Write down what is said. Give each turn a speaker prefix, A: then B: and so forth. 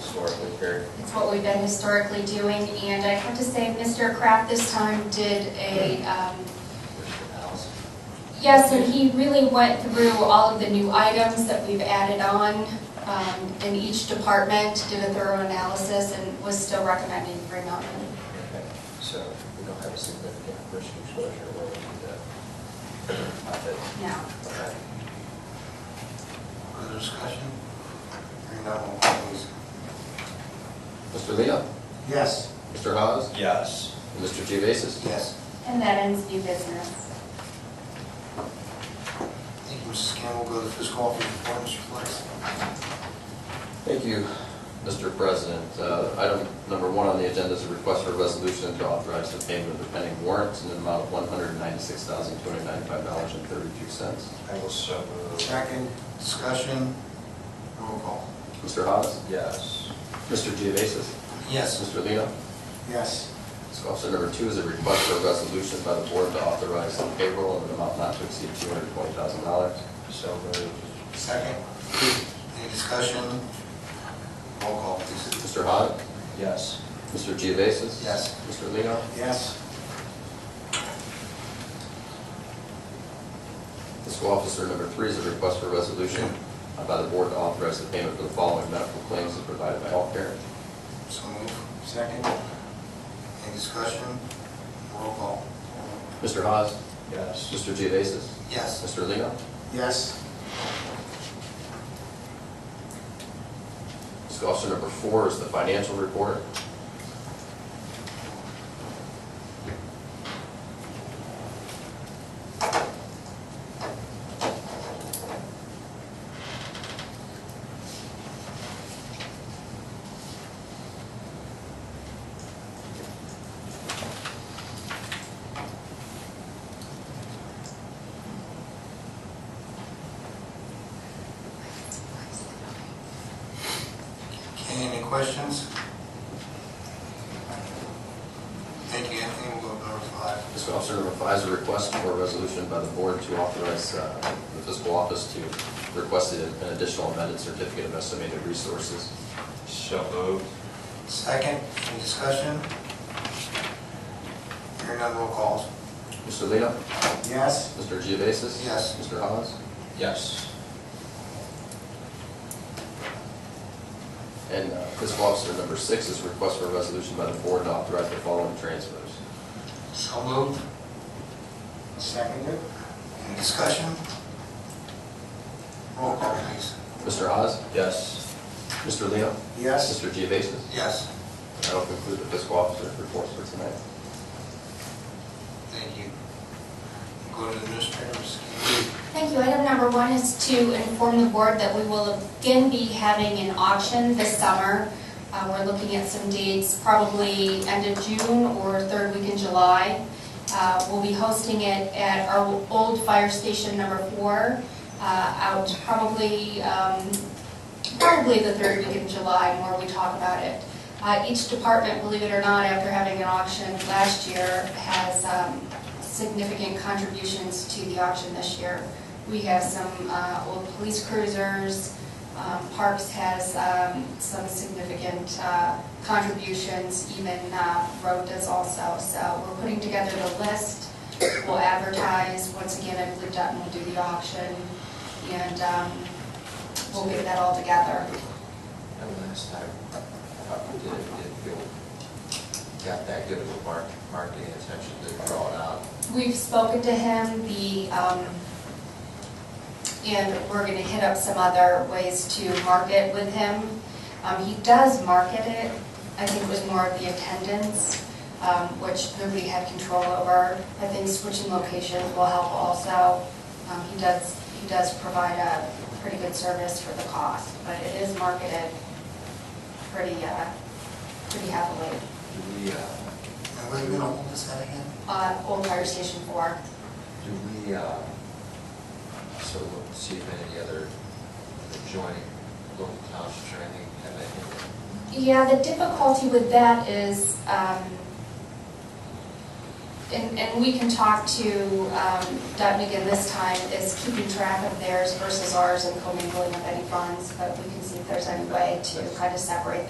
A: historically, Carrie?
B: It's what we've been historically doing, and I have to say, Mr. Kraft this time did a, um, yes, and he really went through all of the new items that we've added on um, in each department, did a thorough analysis, and was still recommending Green Mountain.
A: Okay, So we don't have a significant risk exposure related to that. I think.
B: now.
A: Okay.
C: Further discussion? Hearing none, roll call please.
D: Mr. Leo?
C: Yes.
D: Mr. Hawes?
A: Yes.
D: and Mr. Gevasis?
C: Yes.
B: And that ends new business.
C: Thank you, Mrs. Campbell. Go to the fiscal officer report, Mr. Flex.
D: Thank you, Mr. President. Uh, Item number one on the agenda is a request for a resolution to authorize the payment of the pending warrants in an amount of one hundred ninety-six thousand, two hundred ninety-five dollars and thirty-two cents.
A: I will so move.
C: Second, discussion, roll call.
D: Mr. Hawes?
A: Yes.
D: Mr. Gevasis?
C: Yes.
D: Mr. Leo?
C: Yes.
D: Fiscal Officer number two is a request for a resolution by the board to authorize the payroll in an amount not to exceed two hundred twenty thousand dollars.
A: So moved.
C: Second, any discussion? Roll call, please.
D: Mr. Hawes?
A: Yes.
D: Mr. Gevasis?
C: Yes.
D: Mr. Leo?
C: Yes.
D: Fiscal Officer number three is a request for a resolution by the board to authorize the payment for the following medical claims as provided by healthcare.
C: So move. Second. Any discussion? Roll call.
D: Mr. Hawes?
A: Yes.
D: Mr. Geovasis?
C: Yes.
D: Mr. Lino?
C: Yes.
D: Fiscal Officer number four is the financial report.
C: Okay, any questions? Thank you, Anthony. We'll go to number five.
D: Fiscal Officer number five is a request for a resolution by the board to authorize uh, the fiscal office to request an additional amended certificate of estimated resources.
A: So moved.
C: Second, any discussion? Hearing none, roll call.
D: Mr. Lino?
C: Yes.
D: Mr. Geovasis?
C: Yes.
D: Mr. Hawes?
A: Yes.
D: And uh, fiscal officer number six is a request for a resolution by the board to authorize the following transfers.
C: So moved. Seconded. Any discussion? Roll call, please.
D: Mr. Hawes?
A: Yes.
D: Mr. Lino? Mr. Geovasis?
C: Yes,
D: That'll conclude the fiscal officer's report for tonight.
C: thank you. Go to the administrators.
B: Thank you. Item number one is to inform the board that we will again be having an auction this summer. Uh, We're looking at some dates, probably end of June or third week in July. Uh, We'll be hosting it at our old fire station number four, uh, out probably, um, probably the third week in July, more we talk about it. Uh, Each department, believe it or not, after having an auction last year, has um, significant contributions to the auction this year. We have some uh, old police cruisers, um, Parks has um, some significant uh, contributions, even uh, Road does also. So we're putting together the list, we'll advertise, once again, I believe Dutton will do the auction, and um, we'll get that all together.
A: And last time, uh, we did, did feel, got that good of a mark, marketing attention to draw it out.
B: We've spoken to him, the, um, and we're gonna hit up some other ways to market with him. Um, he does market it, I think it was more of the attendance, um, which nobody had control over. I think switching locations will help also. Um, he does, he does provide a pretty good service for the cost, but it is marketed pretty, uh, pretty heavily.
A: Do we, uh,
C: Now, where are we gonna hold this at again?
B: Uh, Old Fire Station Four.
A: do we, uh, so we'll see if any other adjoining local towns or anything have anything
B: Yeah, the difficulty with that is, um, and, and we can talk to, um, Dutton again this time, is keeping track of theirs versus ours and commingling of any funds, but we can see if there's any way to kind of separate